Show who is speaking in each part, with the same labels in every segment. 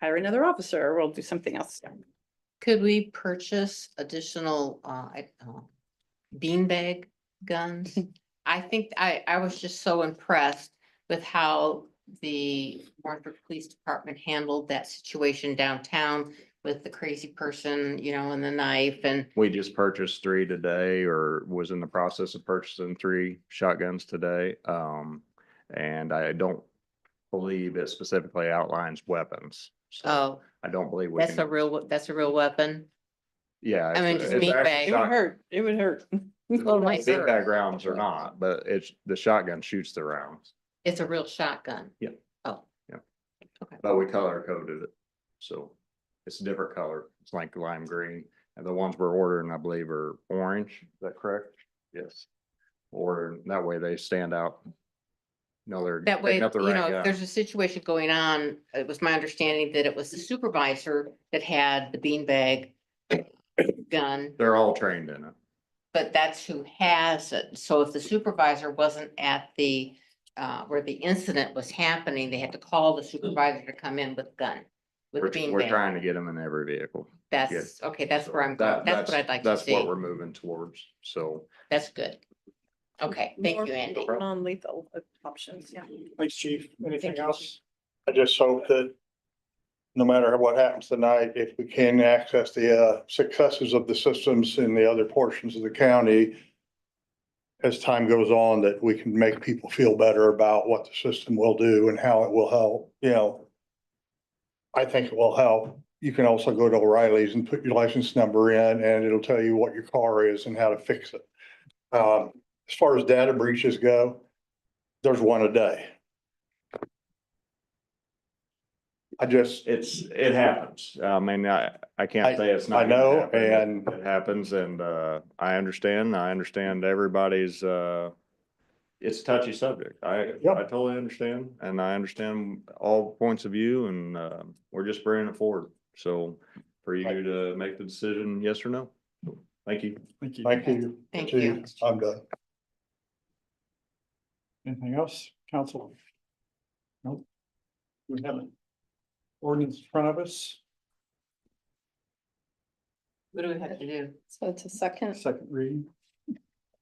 Speaker 1: hire another officer, or we'll do something else.
Speaker 2: Could we purchase additional, uh, I- uh, beanbag guns? I think I, I was just so impressed with how the Martford Police Department handled that situation downtown with the crazy person, you know, and the knife and
Speaker 3: We just purchased three today or was in the process of purchasing three shotguns today. Um, and I don't believe it specifically outlines weapons. So
Speaker 2: oh,
Speaker 3: I don't believe. we
Speaker 2: that's a
Speaker 3: can-
Speaker 2: real, we- that's a real weapon.
Speaker 3: Yeah.
Speaker 2: I mean,
Speaker 3: it's-
Speaker 2: just
Speaker 3: it's
Speaker 2: meat
Speaker 3: actually
Speaker 2: bag.
Speaker 1: It would
Speaker 3: shot-
Speaker 1: hurt, it would hurt.
Speaker 2: Well, my-
Speaker 3: Big backgrounds or not, but it's, the shotgun shoots the rounds,
Speaker 2: It's a real shotgun.
Speaker 3: Yeah.
Speaker 2: Oh.
Speaker 3: Yeah.
Speaker 2: Okay.
Speaker 3: but we color coded it. So it's a different color. It's like lime green. And the ones we're ordering, I believe, are orange. Is that correct? Yes. Or that way they stand out. No, they're.
Speaker 2: That way,
Speaker 3: picking up the
Speaker 2: you
Speaker 3: right
Speaker 2: know,
Speaker 3: guy.
Speaker 2: if there's a situation going on, it was my understanding that it was the supervisor that had the beanbag gun,
Speaker 3: They're all trained in it.
Speaker 2: but that's who has it. So if the supervisor wasn't at the, uh, where the incident was happening, they had to call the supervisor to come in with gun, with
Speaker 3: Hmm. We're, we're
Speaker 2: beanbag.
Speaker 3: trying to get them in every vehicle.
Speaker 2: That's, okay, that's
Speaker 3: So
Speaker 2: where I'm
Speaker 3: that-
Speaker 2: going. That's what I'd like to
Speaker 3: That's what
Speaker 2: see.
Speaker 3: we're moving towards. So
Speaker 2: That's good. Okay, thank you, Andy.
Speaker 1: Non-lethal options, yeah.
Speaker 4: Thanks, chief.
Speaker 2: Thank
Speaker 4: Anything
Speaker 2: you.
Speaker 4: else? I just hope that no matter what happens tonight, if we can access the uh, successes of the systems in the other portions of the county, as time goes on, that we can make people feel better about what the system will do and how it will help, you know. I think it will help. You can also go to O'Reilly's and put your license number in and it'll tell you what your car is and how to fix it. Um, As far as data breaches go, there's one a day. I just,
Speaker 3: it's, it happens. I mean, I, I
Speaker 4: I-
Speaker 3: can't say it's not.
Speaker 4: I
Speaker 3: gonna
Speaker 4: know,
Speaker 3: happen. It-
Speaker 4: and-
Speaker 3: It happens and, uh, I understand. I understand everybody's, uh, it's a touchy subject. I,
Speaker 4: Yep.
Speaker 3: I totally understand and I understand all points of view and, uh, we're just bringing it forward. So for you
Speaker 4: Right.
Speaker 3: to make the decision, yes or no. Thank you.
Speaker 5: Thank you.
Speaker 4: thank you.
Speaker 2: Thank
Speaker 4: Chief.
Speaker 2: you.
Speaker 4: I'm done.
Speaker 5: Anything else, council? Nope. We have an ordinance in front of us,
Speaker 2: What do we have to do?
Speaker 1: So it's a second.
Speaker 5: second reading.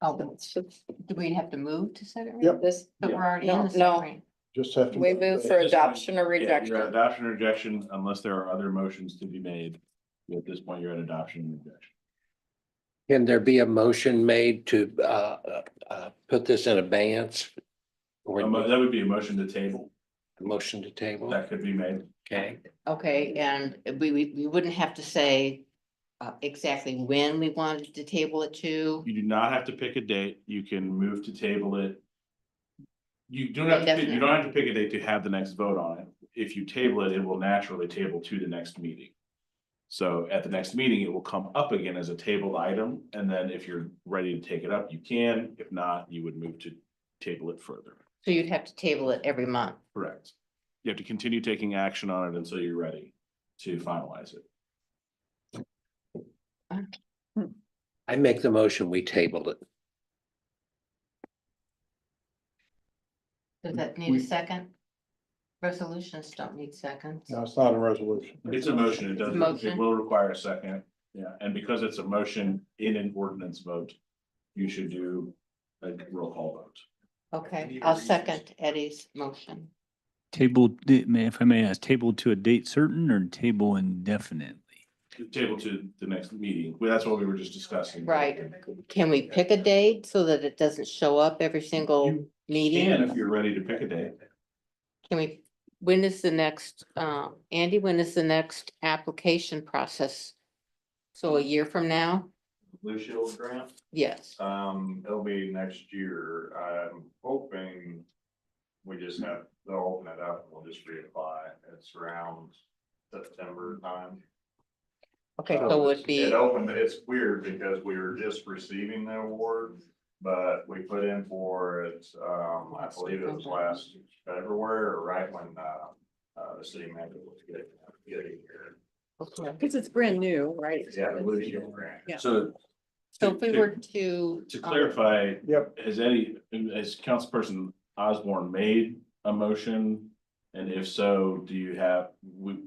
Speaker 2: Oh, do we have to move to second?
Speaker 4: Yep.
Speaker 2: reading?
Speaker 1: This,
Speaker 2: But we're already
Speaker 1: No,
Speaker 2: in the
Speaker 1: no.
Speaker 2: second reading.
Speaker 4: Just have to.
Speaker 1: we move for adoption or
Speaker 6: Yeah, you're at
Speaker 1: rejection.
Speaker 6: Adoption or rejection, unless there are other motions to be made. At this point, you're at adoption and rejection.
Speaker 7: Can there be a motion made to uh, uh, uh, put this in abeyance? Or
Speaker 6: A mo- Um, That would be a motion to table
Speaker 7: a motion to table?
Speaker 6: that could be made.
Speaker 7: Okay,
Speaker 2: Okay, and we, we, we wouldn't have to say uh, exactly when we wanted to table it to.
Speaker 6: You do not have to pick a date. You can move to table it. You do not, have to- you don't have to pick a date to have the next vote on it. If you table it, it will naturally table to the next meeting. So at the next meeting, it will come up again as a tabled item, and then if you're ready to take it up, you can. If not, you would move to table it further.
Speaker 2: So you'd have to table it every month.
Speaker 6: Correct. You have to continue taking action on it until you're ready to finalize it.
Speaker 7: I make the motion, we tabled it.
Speaker 2: Does that need
Speaker 5: We-
Speaker 2: a second? Resolutions don't need seconds.
Speaker 4: No, it's not a resolution.
Speaker 6: It's a motion, it doesn't,
Speaker 2: Motion.
Speaker 6: it will require a second, yeah, and because it's a motion in an ordinance vote, you should do a roll call vote.
Speaker 2: Okay,
Speaker 6: Need a
Speaker 2: I'll
Speaker 6: reason.
Speaker 2: second Eddie's motion.
Speaker 8: Table, di- may- if I may ask, table to a date certain or table indefinitely?
Speaker 6: Table to the next meeting, well, that's what we were just discussing.
Speaker 2: Right. Can we pick a date so that it doesn't show up every single
Speaker 6: You And if
Speaker 2: meeting?
Speaker 6: you're ready to pick a day,
Speaker 2: Can we, when is the next, uh, Andy, when is the next application process? So a year from now?
Speaker 3: Blue Shield grant?
Speaker 2: Yes.
Speaker 6: Uh,
Speaker 3: Um, it'll be next year. I'm hoping we just have, they'll open it up and we'll just reapply. It's around September time.
Speaker 2: Okay, so it would be.
Speaker 3: It opened, it's weird because we were just receiving the award, but we put in for it, um, I believe it was last February or right when, uh, uh, the city manager was getting, getting here.
Speaker 2: Okay.
Speaker 1: Because it's brand new, right?
Speaker 3: Yeah, the Blue Shield grant.
Speaker 1: Yeah.
Speaker 6: so.
Speaker 2: So if we were to.
Speaker 6: To
Speaker 2: um,
Speaker 6: clarify,
Speaker 4: Yep.
Speaker 6: has Eddie, has councilperson Osborne made a motion? And if so, do you have, we,